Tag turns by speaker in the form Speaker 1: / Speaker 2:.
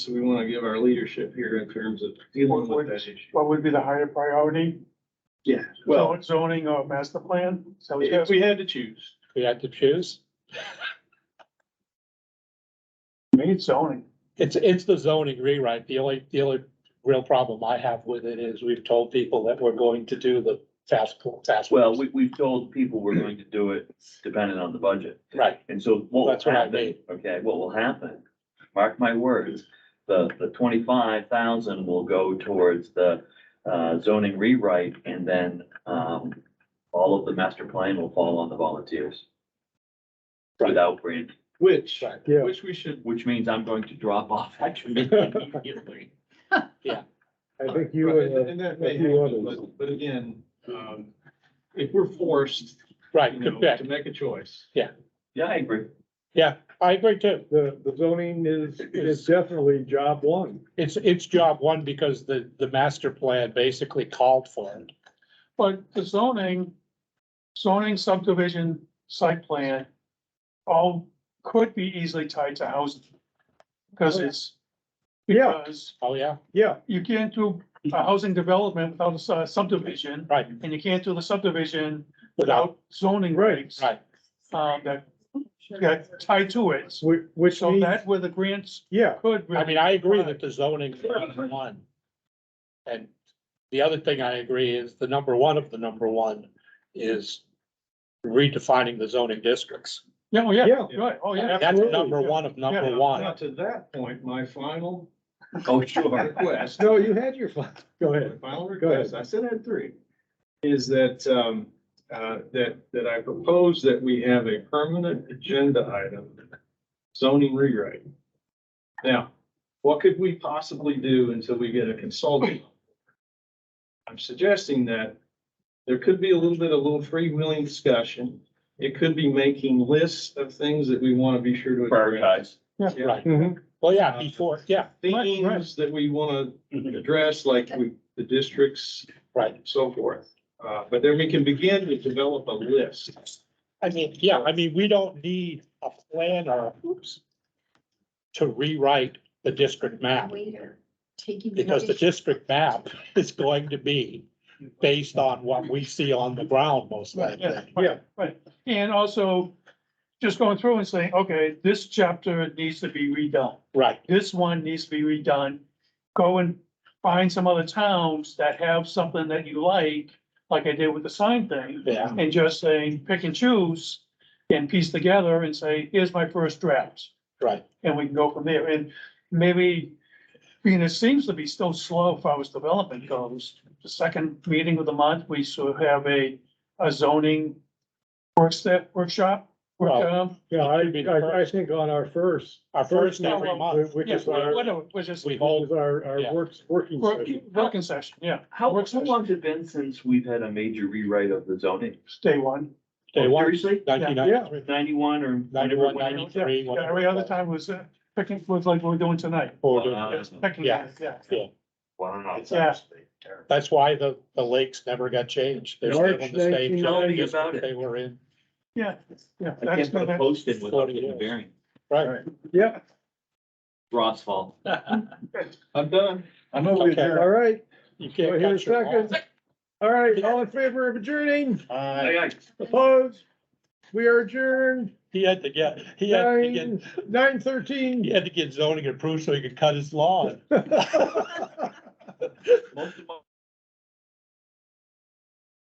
Speaker 1: So we want to give our leadership here in terms of dealing with that issue.
Speaker 2: What would be the higher priority?
Speaker 1: Yeah, well,
Speaker 2: Zoning or master plan? So we
Speaker 1: if
Speaker 2: have,
Speaker 1: we had to choose.
Speaker 3: We had to choose.
Speaker 2: me, it's zoning.
Speaker 3: It's, it's the zoning rewrite. The only, the only real problem I have with it is we've told people that we're going to do the task, task.
Speaker 4: Well, we, we've told people we're going to do it dependent on the budget.
Speaker 3: Right,
Speaker 4: And so what
Speaker 3: That's
Speaker 4: will
Speaker 3: what I
Speaker 4: happen,
Speaker 3: mean.
Speaker 4: okay, what will happen, mark my words, the, the twenty-five thousand will go towards the uh, zoning rewrite and then, um, all of the master plan will fall on the volunteers.
Speaker 3: Right.
Speaker 4: Without grant,
Speaker 1: Which,
Speaker 3: right.
Speaker 5: Yeah.
Speaker 1: which we should,
Speaker 4: which means I'm going to drop off actually immediately.
Speaker 5: I think you
Speaker 1: Right,
Speaker 5: and,
Speaker 1: and
Speaker 5: uh,
Speaker 1: and that may
Speaker 5: a few
Speaker 1: happen,
Speaker 5: others.
Speaker 1: but, but again, um, if we're forced,
Speaker 3: right,
Speaker 1: you know,
Speaker 3: correct.
Speaker 1: to make a choice.
Speaker 4: Yeah, I agree.
Speaker 3: Yeah, I agree too.
Speaker 5: the, the zoning is, is definitely job one.
Speaker 3: It's, it's job one because the, the master plan basically called for it.
Speaker 2: But the zoning, zoning subdivision site plan, all could be easily tied to housing. Because it's,
Speaker 5: Yeah.
Speaker 2: because
Speaker 3: Oh, yeah,
Speaker 5: Yeah,
Speaker 2: you can't do a housing development without a su- subdivision,
Speaker 3: right,
Speaker 2: and you can't do the subdivision
Speaker 3: without,
Speaker 2: without zoning
Speaker 5: Right.
Speaker 2: regs.
Speaker 3: right,
Speaker 2: Um, that, that tie to it.
Speaker 5: which, which
Speaker 2: So
Speaker 5: means,
Speaker 2: that where the grants
Speaker 5: yeah,
Speaker 2: could. really-
Speaker 3: I mean, I agree that the zoning is number one. And the other thing I agree is the number one of the number one is redefining the zoning districts.
Speaker 2: Yeah, oh, yeah,
Speaker 5: yeah,
Speaker 2: right, oh, yeah.
Speaker 3: That's
Speaker 5: absolutely.
Speaker 3: number one of
Speaker 2: Yeah,
Speaker 3: number
Speaker 1: Now,
Speaker 3: one.
Speaker 1: to that point, my final
Speaker 4: Oh, sure.
Speaker 1: request.
Speaker 5: no, oh, you had your fun, go
Speaker 1: My
Speaker 5: ahead.
Speaker 1: Final
Speaker 5: Go
Speaker 1: request, I said I had three, is that, um, uh, that, that I propose that we have a permanent agenda item, zoning rewrite. Now, what could we possibly do until we get a consultant? I'm suggesting that there could be a little bit of little freewheeling discussion. It could be making lists of things that we want to be sure to address.
Speaker 4: Prioritize.
Speaker 1: Yeah.
Speaker 3: Right,
Speaker 5: Mhm.
Speaker 3: well, yeah, before, yeah,
Speaker 2: Right, right.
Speaker 1: Themes that we want to address, like we, the districts
Speaker 3: right.
Speaker 1: so forth. Uh, but then we can begin to develop a list.
Speaker 3: I mean, yeah, I mean, we don't need a plan or, oops, to rewrite the district map,
Speaker 6: Later, taking.
Speaker 3: because the district map is going to be based on what we see on the ground most
Speaker 2: Yeah,
Speaker 3: likely.
Speaker 5: Yeah.
Speaker 2: right, right. And also just going through and saying, okay, this chapter needs to be redone.
Speaker 3: Right,
Speaker 2: This one needs to be redone. Go and find some other towns that have something that you like, like I did with the sign thing.
Speaker 3: yeah,
Speaker 2: And just saying, pick and choose and piece together and say, here's my first draft.
Speaker 3: right.
Speaker 2: And we can go from there. And maybe, I mean, it seems to be still slow as far as development goes. The second meeting of the month, we sort of have a, a zoning workshop, workshop.
Speaker 3: Well,
Speaker 2: um,
Speaker 5: Yeah, I, I, I think on our first.
Speaker 3: Our first every month,
Speaker 5: Which
Speaker 2: Yeah,
Speaker 5: is our, which
Speaker 2: whatever, which is,
Speaker 3: we hold,
Speaker 5: is our,
Speaker 3: Yeah.
Speaker 5: our works, working
Speaker 2: work-
Speaker 5: session.
Speaker 2: working session, yeah,
Speaker 4: How,
Speaker 2: Works-
Speaker 4: how long's it been since we've had a major rewrite of the zoning?
Speaker 2: day one.
Speaker 3: day one,
Speaker 4: Seriously?
Speaker 3: nineteen ninety-three,
Speaker 4: Ninety-one or?
Speaker 3: ninety-one,
Speaker 4: whenever it went out?
Speaker 3: ninety-three.
Speaker 2: Yeah, Every other time was uh, picking, was like we're doing tonight.
Speaker 3: Or-
Speaker 4: Wow.
Speaker 2: Yes, picking,
Speaker 3: Yeah.
Speaker 2: yeah, yeah.
Speaker 3: yeah.
Speaker 4: Wow.
Speaker 2: Yeah.
Speaker 4: actually terrible.
Speaker 3: That's why the, the lakes never got changed. They're still in the same
Speaker 4: Tell me
Speaker 3: district
Speaker 4: about it.
Speaker 3: They were in,
Speaker 2: Yeah, yeah.
Speaker 4: I
Speaker 2: that's
Speaker 4: can't put a
Speaker 2: gonna-
Speaker 4: post in without
Speaker 3: Forty
Speaker 4: getting a
Speaker 3: years.
Speaker 4: bearing.
Speaker 3: right.
Speaker 5: Yeah,
Speaker 4: Ross fault.
Speaker 1: I'm done.
Speaker 4: I'm
Speaker 3: Okay.
Speaker 5: all right,
Speaker 3: You
Speaker 5: so
Speaker 3: can't
Speaker 5: here a
Speaker 3: catch them all.
Speaker 5: second. All right, all in favor of adjourning,
Speaker 3: Uh,
Speaker 5: opposed? We are adjourned
Speaker 3: He had to get, he had to get
Speaker 5: nine, nine
Speaker 3: He
Speaker 5: thirteen.
Speaker 3: had to get zoning approved so he could cut his lawn.
Speaker 4: Most of my